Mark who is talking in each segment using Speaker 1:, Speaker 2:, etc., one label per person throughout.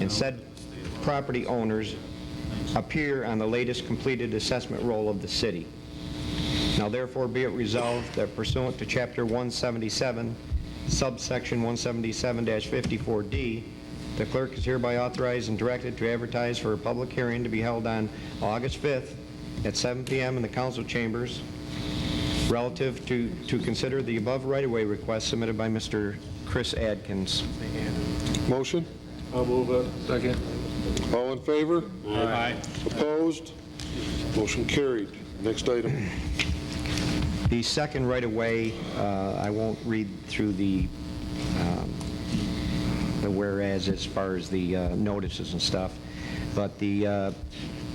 Speaker 1: and said property owners appear on the latest completed assessment roll of the city. Now therefore be it resolved that pursuant to Chapter 177, subsection 177-54D, the clerk is hereby authorized and directed to advertise for a public hearing to be held on August 5th at 7 PM in the council chambers relative to, to consider the above right-of-way request submitted by Mr. Chris Adkins.
Speaker 2: Motion?
Speaker 3: I'll move it. Second.
Speaker 2: All in favor? Opposed? Motion carried. Next item.
Speaker 1: The second right-of-way, uh, I won't read through the, um, the whereas as far as the uh, notices and stuff, but the, uh,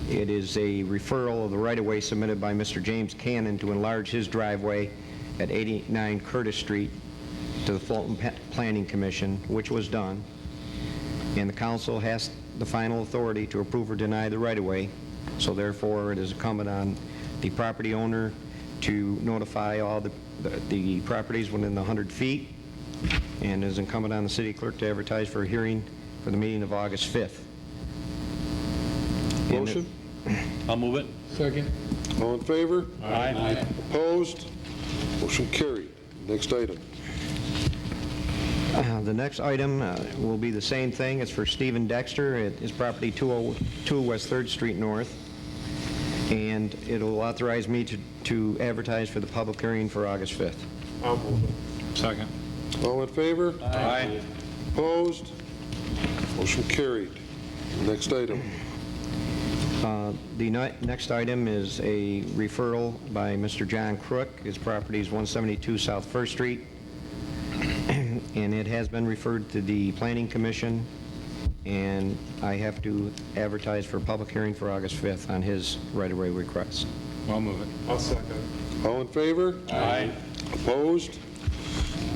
Speaker 1: it is a referral of the right-of-way submitted by Mr. James Cannon to enlarge his driveway at 89 Curtis Street to the Fulton Pa- Planning Commission, which was done, and the council has the final authority to approve or deny the right-of-way, so therefore it is incumbent on the property owner to notify all the, the properties within the 100 feet, and it is incumbent on the city clerk to advertise for a hearing for the meeting of August 5th. And it-
Speaker 2: Motion?
Speaker 4: I'll move it.
Speaker 3: Second.
Speaker 2: All in favor?
Speaker 4: Aye.
Speaker 2: Opposed? Motion carried. Next item.
Speaker 1: Uh, The next item uh, will be the same thing. It's for Stephen Dexter. It is property 202 West 3rd Street North. And it'll authorize me to to advertise for the public hearing for August 5th.
Speaker 3: I'll move it.
Speaker 4: Second.
Speaker 2: All in favor?
Speaker 4: Aye.
Speaker 2: Opposed? Motion carried. Next item.
Speaker 1: Uh, The ni- next item is a referral by Mr. John Crook. His property is 172 South First Street, and it has been referred to the Planning Commission, and I have to advertise for a public hearing for August 5th on his right-of-way request.
Speaker 4: I'll move it.
Speaker 3: I'll second.
Speaker 2: All in favor?
Speaker 4: Aye.
Speaker 2: Opposed?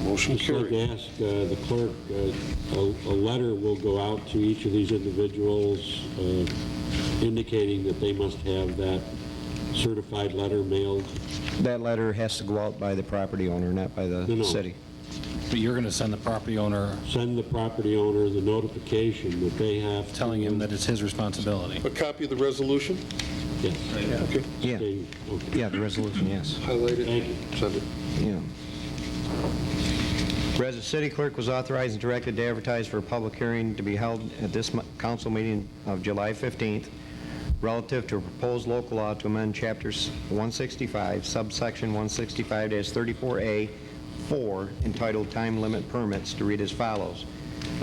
Speaker 2: Motion
Speaker 5: Just like
Speaker 2: carried.
Speaker 5: to ask uh, the clerk, uh, a a letter will go out to each of these individuals uh, indicating that they must have that certified letter mailed.
Speaker 1: That letter has to go out by the property owner, not by
Speaker 5: No,
Speaker 1: the
Speaker 5: no.
Speaker 1: city.
Speaker 4: But you're going to send the property owner
Speaker 5: Send the property owner the notification that they have. to-
Speaker 4: telling him that it's his responsibility.
Speaker 2: A copy of the resolution?
Speaker 5: Yes.
Speaker 2: Okay.
Speaker 1: Yeah,
Speaker 5: Okay, okay.
Speaker 1: yeah, the resolution, yes,
Speaker 2: Highlight it.
Speaker 5: Thank you.
Speaker 2: Send it.
Speaker 1: yeah. Whereas the city clerk was authorized and directed to advertise for a public hearing to be held at this mo- council meeting of July 15th relative to a proposed local law to amend chapters 165, subsection 165-34A4 entitled Time Limit Permits to read as follows.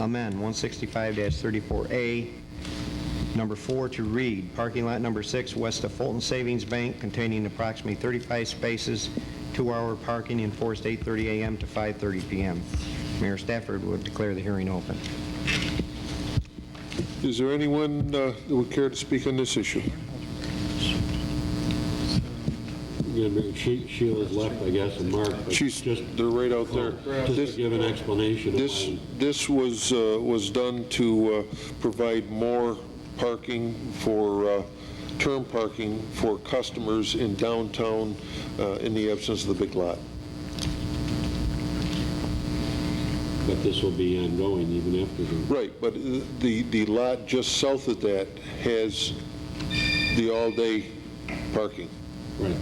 Speaker 1: Amend 165-34A Number four, to read, parking lot number six, west of Fulton Savings Bank, containing approximately 35 spaces, two-hour parking enforced 8:30 a.m. to 5:30 p.m. Mayor Stafford would declare the hearing open.
Speaker 2: Is there anyone uh, that would care to speak on this issue?
Speaker 5: Again, Mary, She Sheila's left, I guess, and Mark. but
Speaker 2: She's,
Speaker 5: Just
Speaker 2: they're right out there.
Speaker 5: just to
Speaker 2: This,
Speaker 5: give an explanation. of
Speaker 2: this,
Speaker 5: why-
Speaker 2: this was, uh, was done to uh, provide more parking for, uh, term parking for customers in downtown uh, in the absence of the big lot.
Speaker 5: But this will be ongoing even after the...
Speaker 2: Right, but the, the lot just south of that has the all-day parking.
Speaker 5: Right.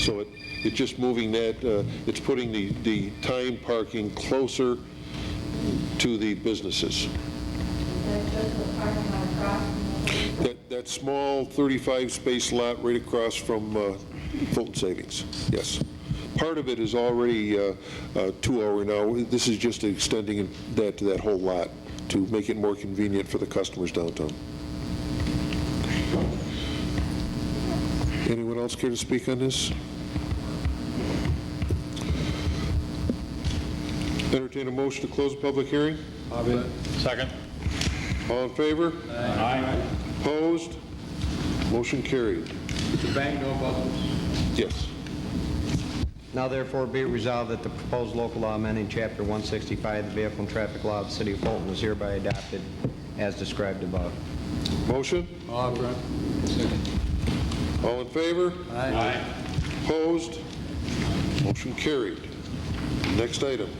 Speaker 2: So it, it's just moving that, uh, it's putting the, the time parking closer to the businesses. That, that small 35-space lot right across from uh, Fulton Savings, yes. Part of it is already uh, uh, two-hour now. This is just extending that to that whole lot to make it more convenient for the customers downtown. Anyone else care to speak on this? Entertain a motion to close the public hearing?
Speaker 4: Second.
Speaker 2: All in favor?
Speaker 4: Aye.
Speaker 2: Opposed? Motion carried.
Speaker 3: The bank, no bubbles.
Speaker 2: Yes.
Speaker 1: Now therefore be it resolved that the proposed local law amending Chapter 165, the Vehicle and Traffic Law of the City of Fulton is hereby adopted as described above.
Speaker 2: Motion?
Speaker 3: Aye.
Speaker 2: All in favor?
Speaker 4: Aye.
Speaker 2: Opposed? Motion carried. Next item.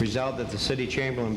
Speaker 1: Resolved that the city chamberlain be